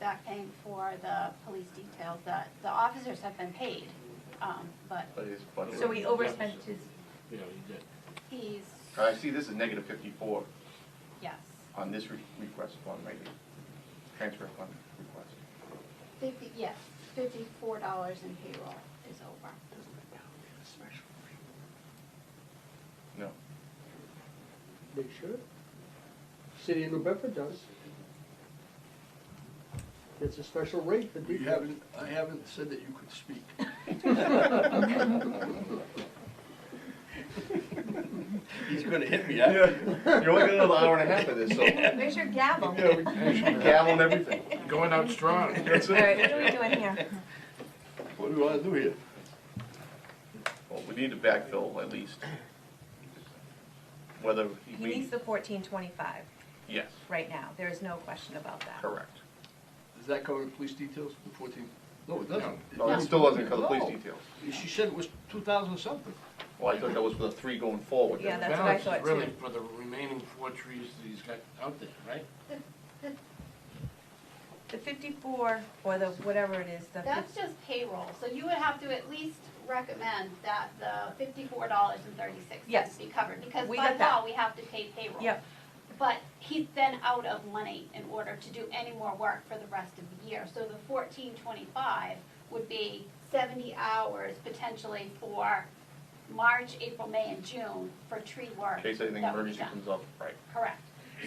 back paying for the police details, the, the officers have been paid, um, but But it's budgeted. So we overspent his, Yeah, you did. he's, All right, see, this is negative fifty-four yes. on this re- request fund right here, transfer fund request. Fifty, yes, fifty-four dollars in payroll is over. No, They should. City of New Bedford does. It's a special rate for You details. haven't, I haven't said that you could speak. He's gonna hit me, huh? you're only getting another hour and a half of this, so. where's your gavel? Yeah, we- You should gavel and everything. Going out strong. That's All right, what are we it. doing here? What do you wanna do here? Well, we need to backfill at least. Whether He we, needs the fourteen twenty-five yes, right now, there is no question about that. correct. Does that cover the police details, the fourteen? No, it doesn't. No, it still doesn't cover the police No. details. She said it was two thousand something. Well, I thought that was for the three going forward. Yeah, The that's what I balance is thought too. really for the remaining four trees that he's got out there, right? The fifty-four, or the, whatever it is, the That's fif- just payroll, so you would have to at least recommend that the fifty-four dollars and thirty-six Yes. cents be covered, because We by got that. law, we have to pay payroll. Yep. But he's then out of money in order to do any more work for the rest of the year, so the fourteen twenty-five would be seventy hours potentially for March, April, May, and June for tree work. In case anything that would be emergency done. comes up, right. Correct.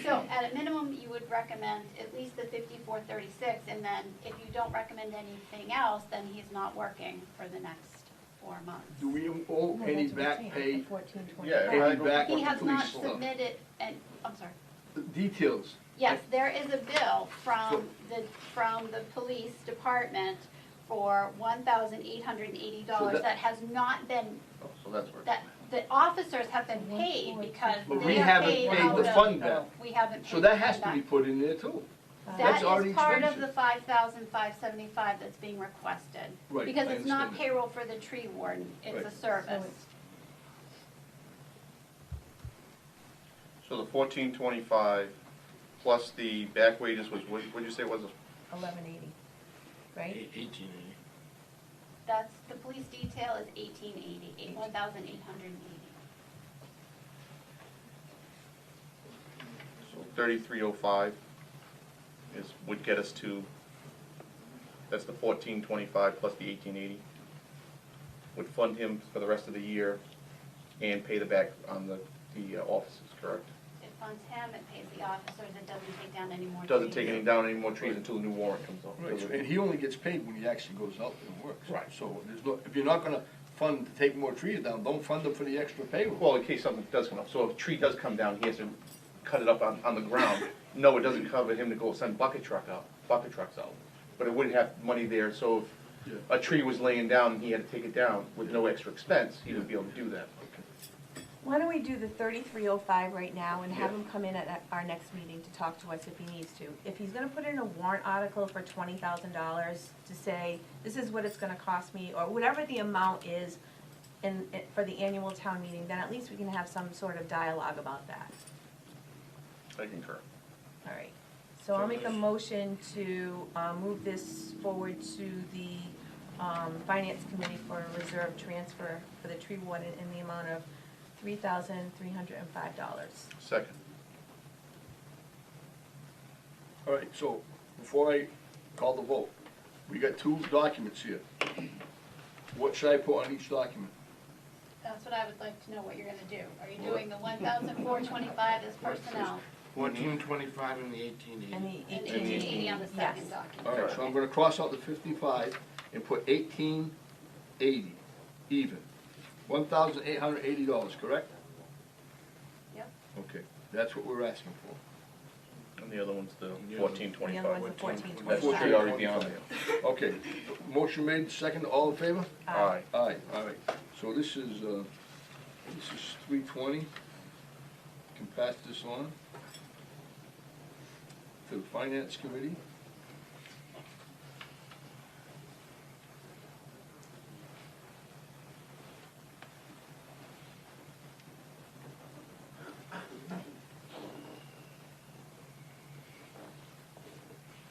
So at a minimum, you would recommend at least the fifty-four thirty-six, and then if you don't recommend anything else, then he's not working for the next four Do months. we owe No, any that's what I'm back saying, pay, the 1425. Yeah, any Right. back He or has not police stuff? submitted, and, I'm sorry. Details. Yes, there is a bill from the, from the police department for one thousand eight hundred and eighty So dollars that- that has not been, Oh, So that's where. that, the officers have been paid because But we they are haven't paid paid out the of- fund back. We haven't paid So that the has fund to be back. put in there too. That's That already is part of expensive. the five thousand five seventy-five that's being requested. Right, Because I it's not understand that. payroll for the tree warden, it's Right. a service. So it's- So the fourteen twenty-five plus the back wages was, what, what'd you say it was? eleven eighty, right? Eight- Eighteen eighty. That's, the police detail is eighteen eighty, eight, one thousand eight hundred and eighty. So thirty-three oh five is, would get us to, that's the fourteen twenty-five plus the eighteen eighty. Would fund him for the rest of the year and pay the back on the, the uh, offices, correct? It funds him, it pays the officers, it doesn't take down any more. Doesn't take trees. any down any more trees until the new warrant comes out. Right, so- and he only gets paid when he actually goes out and works. Right. So there's no, if you're not gonna fund to take more trees down, don't fund them for the extra payroll. Well, in case something does come up, so if a tree does come down, he has to cut it up on, on the ground. No, it doesn't cover him to go send bucket truck out, bucket trucks out, but it would have money there, so if a tree was laying down and he had to take it down with no extra expense, he would be able to do that. Why don't we do the thirty-three oh five right now and have Yeah. him come in at our next meeting to talk to us if he needs to? If he's gonna put in a warrant article for twenty thousand dollars to say, this is what it's gonna cost me, or whatever the amount is in, in- for the annual town meeting, then at least we can have some sort of dialogue about that. I concur. All right, so I'll make a Okay. motion to uh, move this forward to the um, Finance Committee for a reserve transfer for the tree warden in the amount of three thousand three hundred and five dollars. Second. All right, so before I call the vote, we got two documents here. What should I put on each document? That's what I would like to know what you're gonna do. Are you doing the one thousand four twenty-five as personnel Fourteen twenty-five and the eighteen And eighty. the and eighteen eighteen eighty on the yes. second document? All right, so I'm gonna cross out the fifty-five and put eighteen eighty, even. One thousand eight hundred eighty dollars, correct? Yep. Okay, that's what we're asking for. And the other one's the Yeah. fourteen The other twenty-five. one's the fourteen That twenty-five. Um, should already be on there. Okay, motion made, second, all in favor? Aye. Aye, all right, so this is, uh, this is three twenty, can pass this on to the finance committee.